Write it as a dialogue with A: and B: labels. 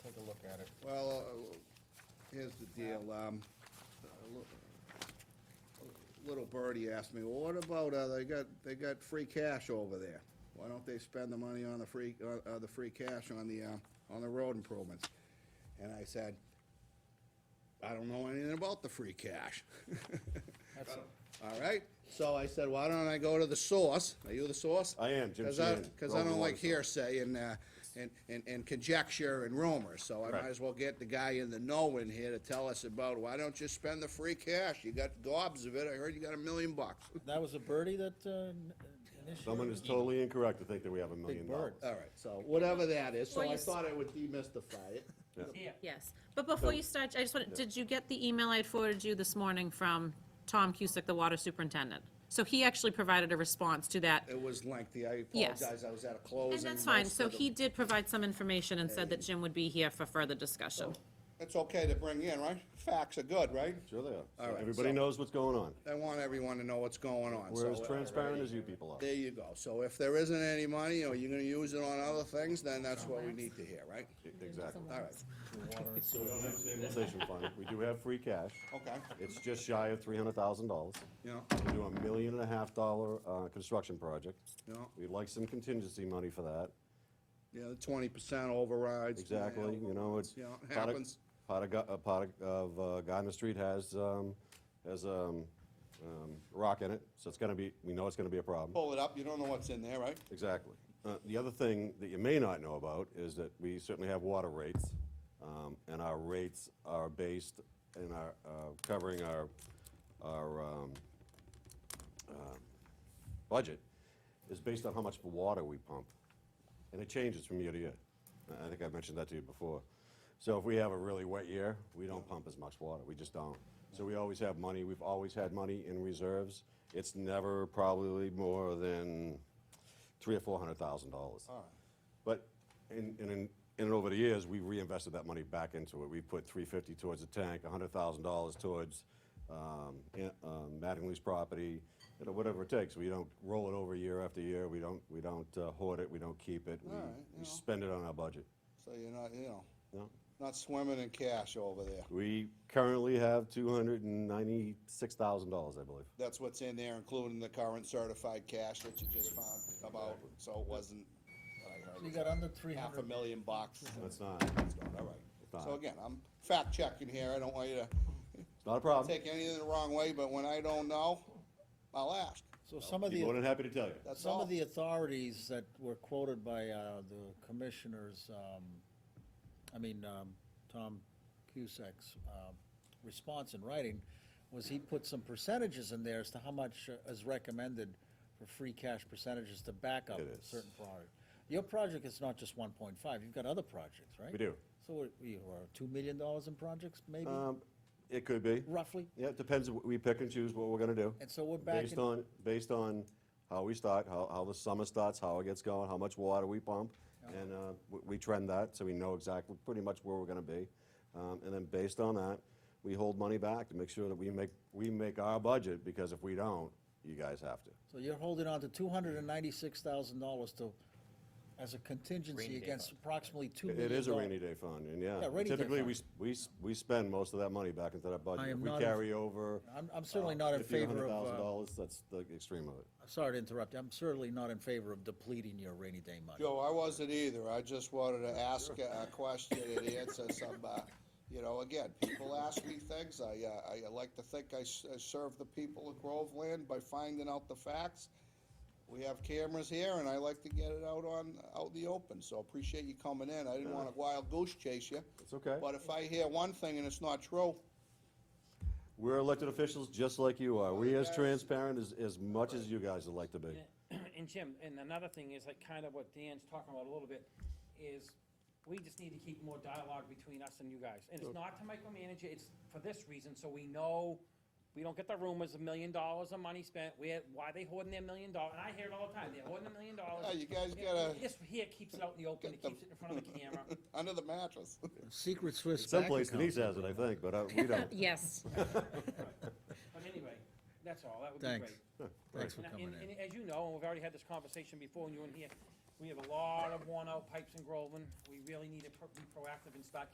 A: at it.
B: Well, uh, here's the deal, um, a li- little birdie asked me, well, what about, uh, they got, they got free cash over there? Why don't they spend the money on the free, uh, uh, the free cash on the, uh, on the road improvements? And I said, I don't know anything about the free cash.
A: That's-
B: All right, so I said, why don't I go to the source? Are you the source?
C: I am, Jim
B: Because I,
C: Sheehan,
B: because I
C: Groveland
B: don't
C: Water
B: like hearsay and, uh, and, and and conjecture and rumors, so I might
C: Right.
B: as well get the guy in the know in here to tell us about, why don't you spend the free cash? You got gobs of it, I heard you got a million bucks.
A: That was a birdie that, uh, initiated?
C: Someone is totally incorrect to think that we have a million dollars.
A: bird.
B: All right, so whatever that is, so
D: Well, you
B: I
D: s-
B: thought I would demystify it.
D: Yes, but before you start, I just wanted, did you get the email I had forwarded you this morning from Tom Cusick, the water superintendent? So he actually provided a response to that,
B: It was lengthy, I
D: Yes.
B: apologize, I was at a closing.
D: and that's fine,
B: most
D: so
B: of the-
D: he did provide some information and said that Jim would be here for further
B: Oh.
D: discussion.
B: It's okay to bring in, right? Facts are good, right?
C: Sure they are. So
B: All right,
C: Everybody
B: so-
C: knows what's going on.
B: I want everyone to know what's going on.
C: We're
B: so- uh,
C: as transparent as you people are.
B: There you go. So if there isn't any money, or you're gonna use it on other things, then that's what we need to hear, right?
C: E, Exactly.
B: All right,
C: Stabilization fund, we do have free cash.
B: okay,
C: It's just shy of three hundred thousand dollars.
B: you know,
C: We do a million and a half dollar, uh, construction project.
B: you know,
C: We'd like some contingency money for that.
B: yeah, the twenty percent overrides. you know,
C: Exactly, you know, it's.
B: You know, it
C: part of-
B: happens.
C: Part of, gu- a part of, of, uh, guy in the street has, um, has, um, um, rock in it, so it's gonna be, we know it's gonna be a problem.
B: Pull it up, you don't know what's in there, right?
C: Exactly. Uh, The other thing that you may not know about is that we certainly have water rates, um, and our rates are based and are uh, covering our, our um, uh, budget, is based on how much water we pump. And it changes from year to year. I- I think I mentioned that to you before. So if we have a really wet year, we don't pump as much water, we just don't. So we always have money, we've always had money in reserves. It's never probably more than three or four hundred thousand dollars. But in, in, in, in and over the years, we reinvested that money back into it. We put three fifty towards the tank, a hundred thousand dollars towards, um, in- um, Mattingly's property, you know, whatever it takes. We don't roll it over year after year. We don't, we don't uh, hoard it. We don't keep it. We,
B: All right, you know.
C: we spend it on our budget.
B: So you're not, you know,
C: No.
B: not swimming in cash over there.
C: We currently have two hundred and ninety-six thousand dollars, I believe.
B: That's what's in there, including the current certified cash that you just found about, so it wasn't, I
A: You
B: heard,
A: got under three
B: half a
A: hundred.
B: million bucks.
C: That's not,
B: It's gone, All right. So
C: Fine.
B: again, I'm fact checking here. I don't want you to
C: it's not a problem.
B: take anything the wrong way, but when I don't know, I'll ask.
A: So some of
C: Be more
A: the,
C: than happy to tell you.
B: That's
A: some
B: all.
A: of the authorities that were quoted by, uh, the commissioners, um, I mean, um, Tom Cusack's, um, response in writing was he put some percentages in there as to how much uh, is recommended for free cash percentages to back up
C: It is.
A: certain project. Your project is not just one point five, you've got other projects, right?
C: We do.
A: So what, you are two million dollars in projects, maybe,
C: Um, it could be.
A: roughly?
C: Yeah, it depends, what we pick and choose what we're gonna do.
A: And so we're back
C: Based
A: in-
C: on, based on how we start, how, how the summer starts, how it gets going, how much water we pump, and, uh, we, we trend that, so we know exactly, pretty much where we're gonna be. Um, and then based on that, we hold money back to make sure that we make, we make our budget, because if we don't, you guys have to.
A: So you're holding on to two hundred and ninety-six thousand dollars to, as a contingency against approximately two
C: It-
A: million.
C: It is a
A: doll-
C: rainy day fund, and yeah,
A: Yeah, rainy day
C: typically,
A: fund.
C: we, s- we, s- we spend most of that money back into that budget.
A: I
C: If
A: am
C: we
A: not in-
C: carry over. uh,
A: I'm, I'm certainly not in favor of,
C: thousand
A: uh,
C: dollars, that's the extreme of it.
A: sorry to interrupt, you. I'm certainly not in favor of depleting your rainy day money.
B: Joe, I wasn't either. I just wanted to ask a a question and answer some, uh, you know, again, people ask me things. I, uh, I like to think I s- I serve the people of Groveland by finding out the facts. We have cameras here and I like to get it out on, out in the open, so appreciate you coming in. I didn't want to wild goose chase you.
C: It's okay.
B: But if I hear one thing and it's not true,
C: We're elected officials just like you are. We as
B: guys-
C: transparent as, as much as you guys would like to be.
E: And Jim, and another thing is like kind of what Dan's talking about a little bit, is we just need to keep more dialogue between us and you guys. And it's not to micromanage, it, it's for this reason, so we know, we don't get the rumors, a million dollars of money spent, where, why they hoarding their million dollar, and I hear it all the time, they're hoarding a million dollars.
B: Yeah, you guys
E: Yeah,
B: gotta-
E: This here keeps it out in the open, it
B: Get the-
E: keeps it in front of the camera.
B: under the mattress.
A: Secret Swiss bank
C: Someplace Denise
A: account.
C: has it, I think, but uh, we don't.
D: Yes,
E: But anyway, that's all, that would be great.
A: Thanks. Thanks for
E: And-
A: coming
E: And,
A: in.
E: and as you know, and we've already had this conversation before, and you in here, we have a lot of worn-out pipes in Groveland. We really need to pro- be proactive and start